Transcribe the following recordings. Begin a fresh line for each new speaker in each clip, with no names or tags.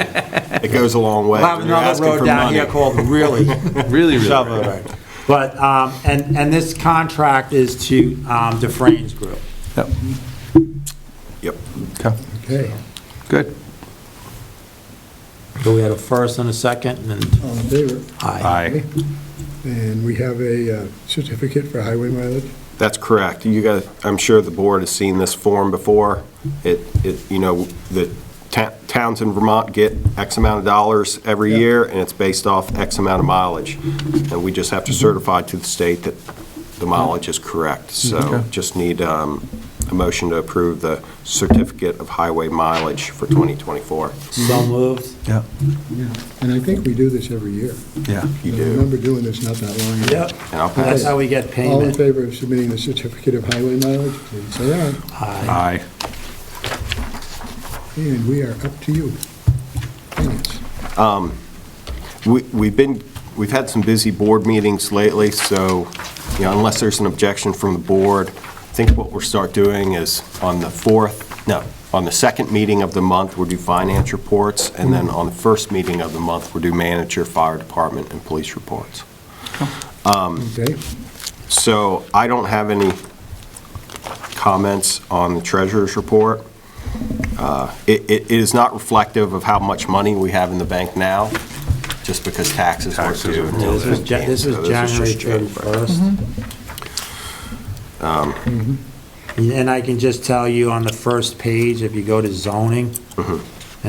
It goes a long way.
We'll have
When you're
another
asking
road
for
down
money-
here called really
Really, really
shovel
bad.
road. But, um, and, and this contract is to um, DeFrane's Group.
Yep.
Yep.
Okay,
Okay,
good.
So we had a first and a second, and then
all in favor?
aye.
And we have a uh, certificate for highway mileage.
That's correct. You guys, I'm sure the board has seen this form before. It, it, you know, the ta- towns in Vermont get X amount of dollars every
Yeah.
year, and it's based off X amount of mileage. And we just have to certify to the state that the mileage is correct. So
Okay.
just need um, a motion to approve the certificate of highway mileage for 2024.
So moved.
Yeah,
Yeah. And I think we do this every year.
yeah.
You
I
do.
remember doing this not that long ago.
Yep,
And I'll pass.
that's how we get
All in
payment.
favor of submitting the certificate of highway mileage, please say aye.
Aye.
Aye.
And we are up to you. Finance.
We- We've been, we've had some busy board meetings lately, so, you know, unless there's an objection from the board, I think what we'll start doing is on the fourth, no, on the second meeting of the month, we'll do finance reports, and then on the first meeting of the month, we'll do manager, fire department, and police reports.
Okay,
So I don't have any comments on the treasurer's report. Uh, It it- it is not reflective of how much money we have in the bank now, just because taxes weren't
Taxes
due
are
until
This
the
is, Ja-
15th,
this
so
is
was
January
just January.
31st. Um, Mm-hmm. And- And I can just tell you on the first page, if you go to zoning, and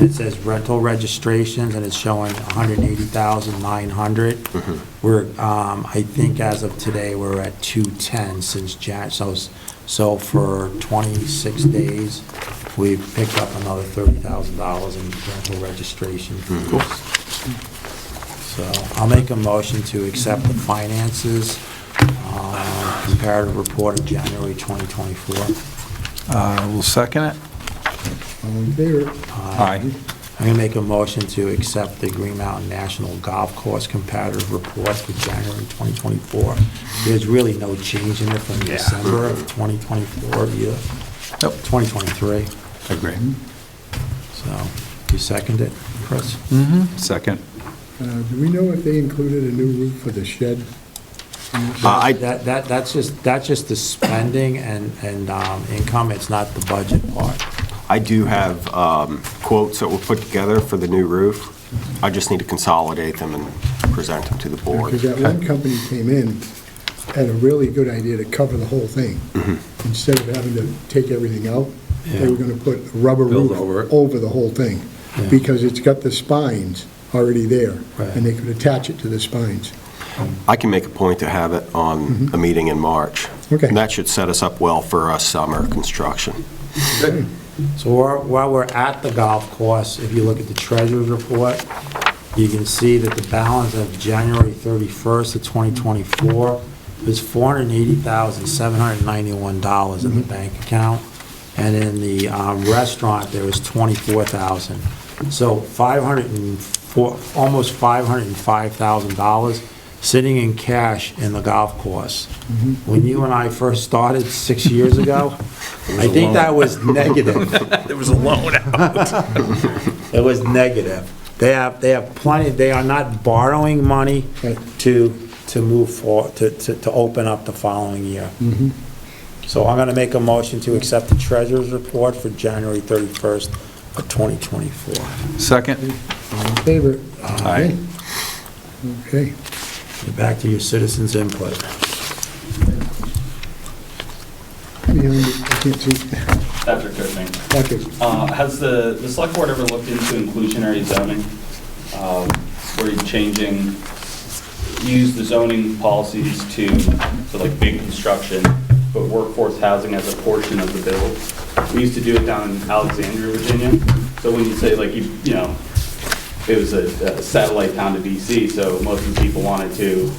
it says rental registrations, and it's showing 180,900. We're, um, I think as of today, we're at 210 since Jan, so, s- so for 26 days, we've picked up another $30,000 in rental registration fees. So I'll make a motion to accept the finances uh, comparative report of January 2024.
Uh, We'll second it.
all in favor?
Aye.
I'm going to make a motion to accept the Green Mountain National Golf Course comparative report for January 2024. There's really no change in it from December of 2024 either,
Nope.
2023.
Agree.
So you second it, Chris?
Mm-hmm. Second.
Uh, Do we know if they included a new roof for the shed?
Uh, I-
That, that, that's just, that's just the spending and, and um, income. It's not the budget part.
I do have um, quotes that were put together for the new roof. I just need to consolidate them and present them to the board.
Because that one company came in, had a really good idea to cover the whole thing.
Mm-hmm.
Instead of having to take everything out, they were gonna put a rubber
Build
roof
over it.
over the whole thing,
Yeah.
because it's got the spines already there,
Right.
and they could attach it to the spines.
I can make a point to have it on
Mm-hmm.
a meeting in March.
Okay.
And that should set us up well for our summer construction.
So while while we're at the golf course, if you look at the treasurer's report, you can see that the balance of January 31st of 2024 is $480,791 in the bank account, and in the um, restaurant, there was $24,000. So 504, almost $505,000 sitting in cash in the golf course. When you and I first started six years ago, I think that was negative.
There was a loan
It was negative. They have, they have plenty, they are not borrowing money
Right.
to, to move for, to, to, to open up the following year.
Mm-hmm.
So I'm gonna make a motion to accept the treasurer's report for January thirty-first of twenty twenty-four.
Second.
All in favor?
Aye.
Okay,
Back to your citizens' input.
Beyond it, I can't see,
Patrick Coachman.
okay,
Uh, Has the, the select board ever looked into inclusionary zoning? um, Where you're changing, you use the zoning policies to, to like big construction, but workforce housing as a portion of the build. We used to do it down in Alexandria, Virginia. So when you say like, you, you know, it was a a satellite town to DC, so most of the people wanted to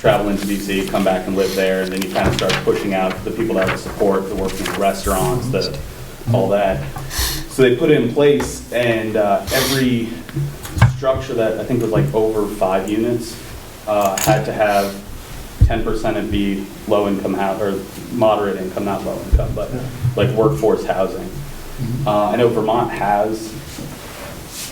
travel into DC, come back and live there, and then you kind of start pushing out the people that would support, the working in restaurants, the, all that. So they put it in place, and uh, every structure that I think was like over five units uh, had to have 10% of be low-income, hou- or moderate income, not low-income, but like workforce housing. Uh, I know Vermont has